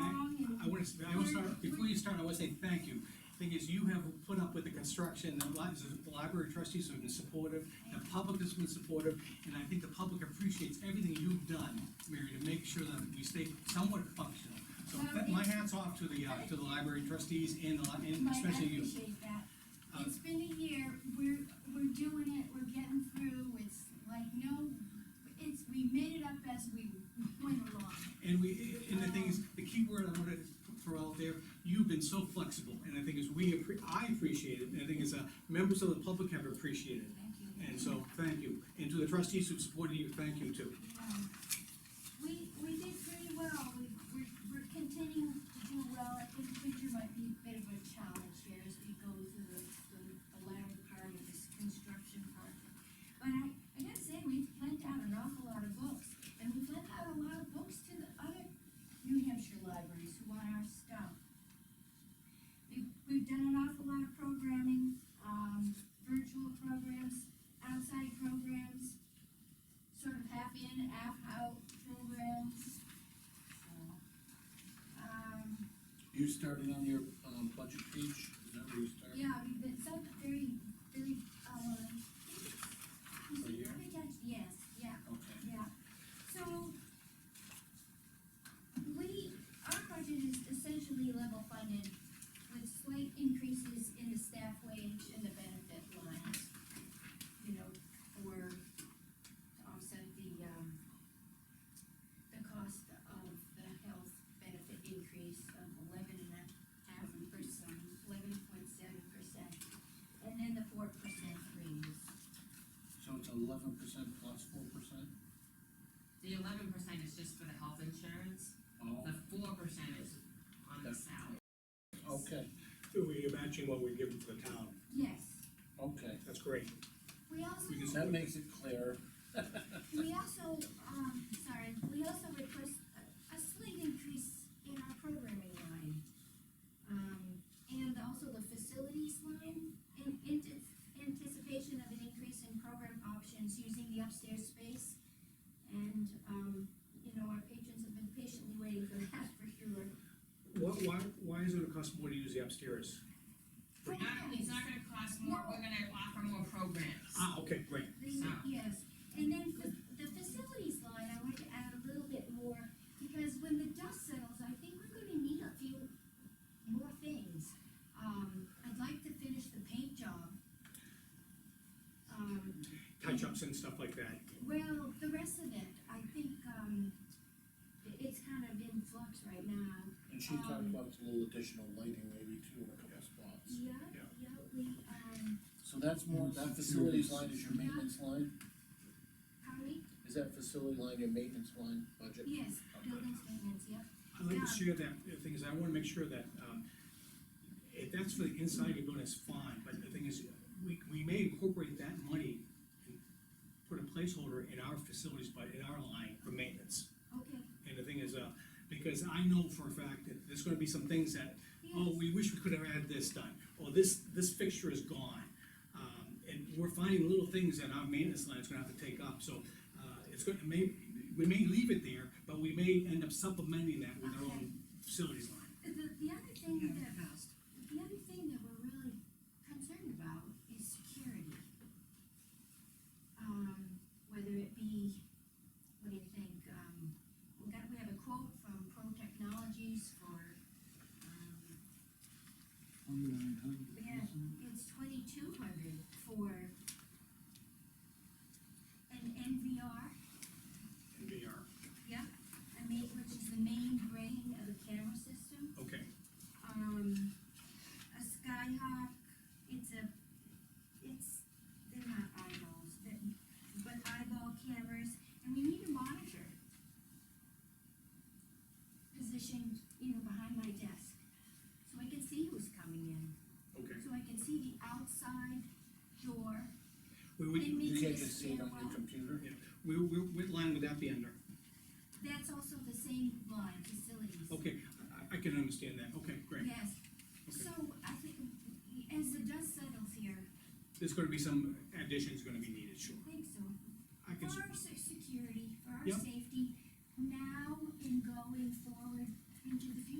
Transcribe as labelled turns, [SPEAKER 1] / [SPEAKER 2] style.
[SPEAKER 1] I wanna, s- I wanna start, before you start, I wanna say thank you. Thing is, you have put up with the construction, the li- the library trustees have been supportive, the public has been supportive, and I think the public appreciates everything you've done, Mary, to make sure that we stay somewhat functional. So that- my hat's off to the, uh, to the library trustees and the, li- and
[SPEAKER 2] Mike, I
[SPEAKER 1] especially you.
[SPEAKER 2] appreciate that.
[SPEAKER 1] Uh,
[SPEAKER 2] It's been a year, we're, we're doing it, we're getting through, it's like, no, it's, we made it up as we went along.
[SPEAKER 1] And we, and the thing is, the key word I wanted to throw out there, you've been so flexible, and the thing is, we, appre- I appreciate it, and the thing is, uh, members of the public have appreciated it.
[SPEAKER 2] Thank you.
[SPEAKER 1] And so, thank you, and to the trustees who supported you, thank you too.
[SPEAKER 2] Um, We, we did pretty well, we, we're, we're continuing to do well, I think winter might be a bit of a challenge here as we go through the, the the latter part of this construction project. But I, I gotta say, we've lent out an awful lot of books, and we've lent out a lot of books to the other New Hampshire libraries who want our stuff. We've, we've done an awful lot of programming, um, virtual programs, outside programs, sort of half in, half out programs. So, Um,
[SPEAKER 3] You started on your, um, budget page, is that where you started?
[SPEAKER 2] yeah, we've been so very, very, uh,
[SPEAKER 3] For you?
[SPEAKER 2] yes, yeah,
[SPEAKER 3] Okay,
[SPEAKER 2] yeah. So, we, our budget is essentially level funded with slight increases in the staff wage and the benefit lines. You know, for, to offset the, um, the cost of the health benefit increase of eleven and a half percent, eleven point seven percent. And then the four percent raise.
[SPEAKER 3] so it's eleven percent plus four percent?
[SPEAKER 4] The eleven percent is just for the health insurance,
[SPEAKER 3] Oh,
[SPEAKER 4] the four percent is on the
[SPEAKER 3] That's-
[SPEAKER 4] salary.
[SPEAKER 3] Oh, okay,
[SPEAKER 5] We're matching what we give to the town,
[SPEAKER 2] Yes,
[SPEAKER 3] okay,
[SPEAKER 5] that's great.
[SPEAKER 2] we also.
[SPEAKER 3] that makes it clear.
[SPEAKER 2] We also, um, sorry, we also request a- a slight increase in our programming line. Um, and also the facilities line, in, in anticipation of an increase in program options using the upstairs space. And, um, you know, our patrons have been patiently waiting for that for sure.
[SPEAKER 1] What, why, why is it gonna cost more to use the upstairs?
[SPEAKER 4] Not, it's not gonna cost more, we're gonna offer more programs.
[SPEAKER 1] Ah, okay, great.
[SPEAKER 2] The- Yes, and then the, the facilities line, I wanted to add a little bit more, because when the dust settles, I think we're gonna need a few more things. Um, I'd like to finish the paint job. Um,
[SPEAKER 1] Touch-ups and stuff like that.
[SPEAKER 2] well, the rest of it, I think, um, i- it's kind of in flux right now.
[SPEAKER 3] And she talked about a little additional lighting maybe too in a couple spots.
[SPEAKER 2] Yeah,
[SPEAKER 1] Yeah.
[SPEAKER 2] yeah, we, um,
[SPEAKER 3] So that's more, that facilities line is your maintenance line?
[SPEAKER 2] pardon me?
[SPEAKER 3] Is that facility line your maintenance line budget?
[SPEAKER 2] Yes, buildings maintenance, yeah.
[SPEAKER 1] I'd like
[SPEAKER 2] Yeah.
[SPEAKER 1] to share that, the thing is, I wanna make sure that, um, if that's for the inside of the building, it's fine, but the thing is, we, we may incorporate that money and put a placeholder in our facilities, but in our line for maintenance.
[SPEAKER 2] Okay,
[SPEAKER 1] And the thing is, uh, because I know for a fact that there's gonna be some things that oh,
[SPEAKER 2] yes,
[SPEAKER 1] we wish we could have had this done, or this, this fixture is gone. Um, and we're finding little things that our maintenance line is gonna have to take up, so, uh, it's gonna, may, we may leave it there, but we may end up supplementing that with our own facilities line.
[SPEAKER 2] the, the other thing that The other thing that we're really concerned about is security. Um, whether it be, what do you think, um, we got, we have a quote from Pro Technologies for, um,
[SPEAKER 6] Twenty-nine hundred.
[SPEAKER 2] Yeah. it's twenty-two hundred for an NVR,
[SPEAKER 1] NVR,
[SPEAKER 2] I mean, which is the main brain of the camera system.
[SPEAKER 1] okay.
[SPEAKER 2] um, a Skyhawk, it's a, it's, they're not eyeballs, but, but eyeball cameras, and we need a monitor. Positioned, you know, behind my desk, so I can see who's coming in,
[SPEAKER 1] Okay.
[SPEAKER 2] so I can see the outside door.
[SPEAKER 1] We would,
[SPEAKER 2] It
[SPEAKER 3] You
[SPEAKER 2] means
[SPEAKER 3] can't
[SPEAKER 2] the
[SPEAKER 3] just see it on your
[SPEAKER 2] stairwell.
[SPEAKER 3] computer?
[SPEAKER 1] we, we, what line would that be under?
[SPEAKER 2] That's also the same line, facilities.
[SPEAKER 1] Okay, I, I can understand that, okay, great.
[SPEAKER 2] Yes,
[SPEAKER 1] Oh, Okay.
[SPEAKER 2] so I think, as the dust settles here,
[SPEAKER 1] There's gonna be some additions gonna be needed.